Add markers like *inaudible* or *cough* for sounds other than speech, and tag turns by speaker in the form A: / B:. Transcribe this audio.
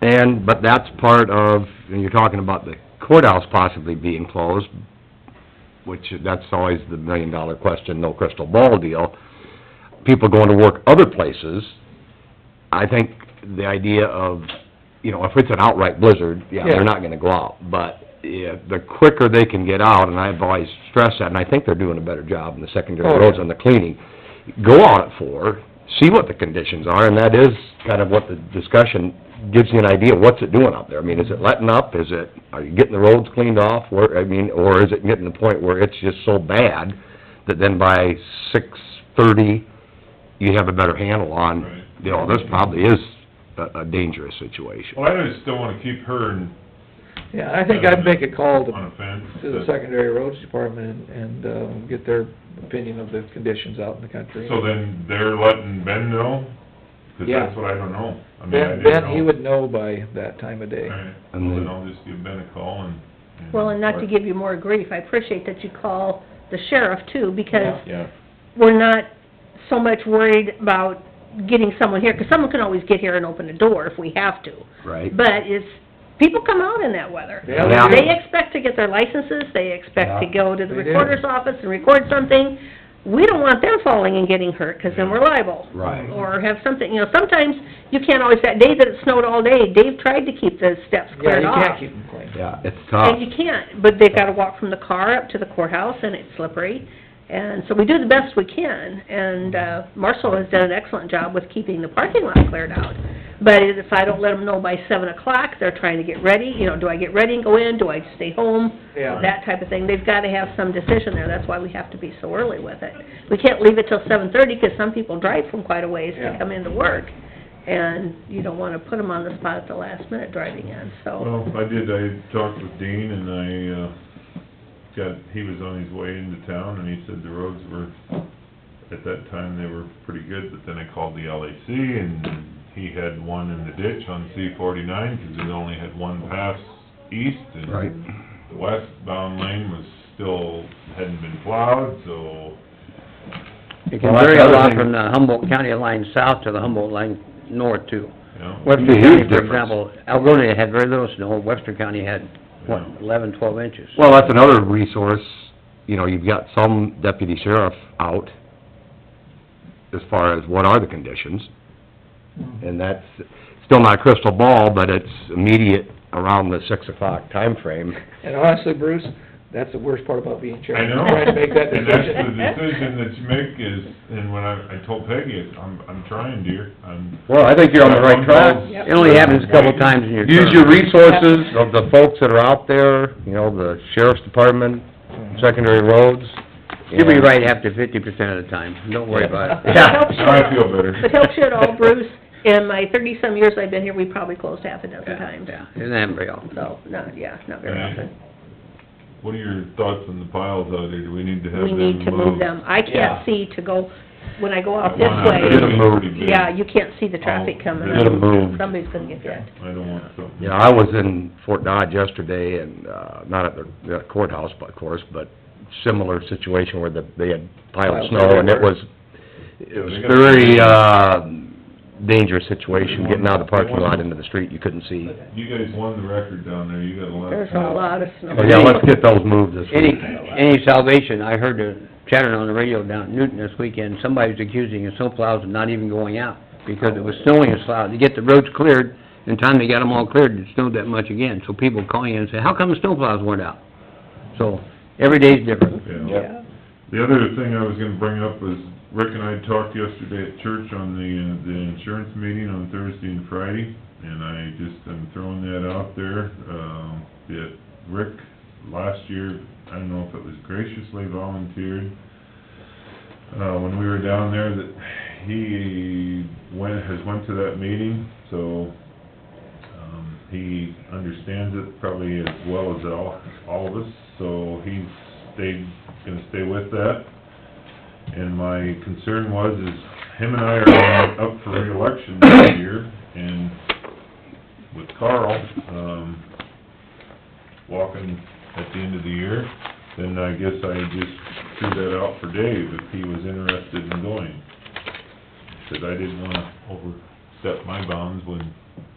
A: And, but that's part of, and you're talking about the courthouse possibly being closed, which, that's always the million-dollar question, no crystal ball deal. People going to work other places, I think the idea of, you know, if it's an outright blizzard, yeah,
B: Yeah.
A: they're not gonna go out. But, yeah, the quicker they can get out, and I've always stressed that, and I think they're doing a better job in the secondary
B: Oh,
A: roads
B: yeah.
A: on the cleaning. Go out at four, see what the conditions are, and that is kind of what the discussion gives you an idea, what's it doing out there? I mean, is it letting up, is it, are you getting the roads cleaned off, where, I mean, or is it getting to the point where it's just so bad that then by six-thirty, you have a better handle on,
C: Right.
A: you know, this probably is a, a dangerous situation.
C: Well, I just don't wanna keep her in, uh,
B: Yeah, I think I'd make a call to,
C: on a fence.
B: to the secondary roads department and, um, get their opinion of the conditions out in the country.
C: So then they're letting Ben know? 'Cause
B: Yeah.
C: that's what I don't know. I mean, I
B: Ben,
C: didn't
B: Ben, he
C: know.
B: would know by that time of day.
C: Alright,
A: And
C: well,
A: then-
C: then I'll just give Ben a call and.
D: Well, and not to give you more grief, I appreciate that you call the sheriff too, because
C: Yeah.
D: we're not so much worried about getting someone here, because someone can always get here and open the door if we have to.
A: Right.
D: But it's, people come out in that weather.
B: Yeah,
A: Yeah.
B: they do.
D: They expect to get their licenses, they expect to
A: Yeah.
D: go to the
B: They do.
D: recorder's office and record something. We don't want them falling and getting hurt, because then we're liable.
A: Right.
D: Or have something, you know, sometimes you can't always, that day that it snowed all day, Dave tried to keep the steps
B: Yeah,
D: cleared
B: you
D: off.
B: can't keep them clean.
A: Yeah, it's tough.
B: Ah.
D: And you can't, but they've gotta walk from the car up to the courthouse, and it's slippery. And so we do the best we can, and, uh, Marshall has done an excellent job with keeping the parking lot cleared out. But if I don't let them know by seven o'clock, they're trying to get ready, you know, do I get ready and go in, do I stay home?
B: Yeah.
D: That type of thing, they've gotta have some decision there, that's why we have to be so early with it. We can't leave it till seven thirty, 'cause some people drive from quite a ways
B: Yeah.
D: to come into work. And you don't wanna put them on the spot at the last minute driving in, so,
C: Well, I did, I talked with Dean and I, uh, got, he was on his way into town and he said the roads were, at that time, they were pretty good, but then I called the LAC and he had one in the ditch on C forty-nine, 'cause it only had one pass east and
A: Right.
C: the westbound lane was still, hadn't been plowed, so
E: It can
A: Well, that's
E: vary a
A: another
E: lot
A: thing.
E: from the Humboldt County line south to the Humboldt line north too.
C: you know.
E: Webster
A: Huge
E: County, for
A: difference.
E: example, Algonia had very little snow, Webster County had, what,
C: Yeah.
E: eleven, twelve inches?
A: Well, that's another resource, you know, you've got some deputy sheriff out as far as what are the conditions, and that's still not a crystal ball, but it's immediate around the six o'clock timeframe.
B: And honestly, Bruce, that's the worst part about being
C: I
B: chairman.
C: know.
B: Trying to make that
C: *laughs* And that's the
B: decision.
C: decision that you make is, and when I, I told Peggy, I'm, I'm trying, dear, I'm.
A: Well, I think
C: Yep.
E: It only happens a couple times in your term.
A: Use your resources of the folks that are out there, you know, the sheriff's department, secondary roads.
E: You'll be right after fifty percent of the time, don't worry about it.
A: Yeah.
D: helps you.
C: Now I feel better.
D: It helps you at all, Bruce. In my thirty-some years I've been here, we probably closed half a dozen times.
E: *laughs* Yeah, isn't that real?
D: So, not, yeah, not very
C: Right.
D: often.
C: What are your thoughts on the piles out there? Do we need to have
D: We
C: them
D: need to move them. I
A: Yeah.
D: can't see to go, when I go
C: That
D: out this
C: one out
A: Get
C: there
D: way,
A: them
C: is
A: moved.
C: pretty big.
D: yeah, you can't see the traffic coming.
C: Oh, Get them
A: moved.
D: Somebody's gonna get hit.
C: I don't want something.
A: Yeah, I was in Fort Dodge yesterday and, uh, not at the courthouse, but of course, but similar situation where the, they had piled
B: Piled
A: snow and it was, it was very, uh, dangerous situation getting out of the parking lot into the street, you couldn't see.
C: You guys won the record down there, you got a lot of...
D: There's a lot of snow.
A: So, yeah, let's get those moved this
E: Any,
A: week.
E: any salvation, I heard the chattering on the radio down in Newton this weekend, somebody was accusing the snowplows of not even going out because it was snowing as loud. To get the roads cleared, in time they got them all cleared, it snowed that much again. So people calling in and say, how come the snowplows weren't out? So, every day's different.
C: Yeah. The other thing I was gonna bring up was Rick and I talked yesterday at church on the, uh, the insurance meeting on Thursday and Friday, and I just am throwing that out there, um, that Rick last year, I don't know if it was graciously volunteered, uh, when we were down there, that he went, has went to that meeting, so, um, he understands it probably as well as all, all of us, so he's stayed, gonna stay with that. And my concern was is him and I are up for reelection this year, and with Carl, um, walking at the end of the year, then I guess I just threw that out for Dave, if he was interested in going. Because I didn't wanna overstep my bounds when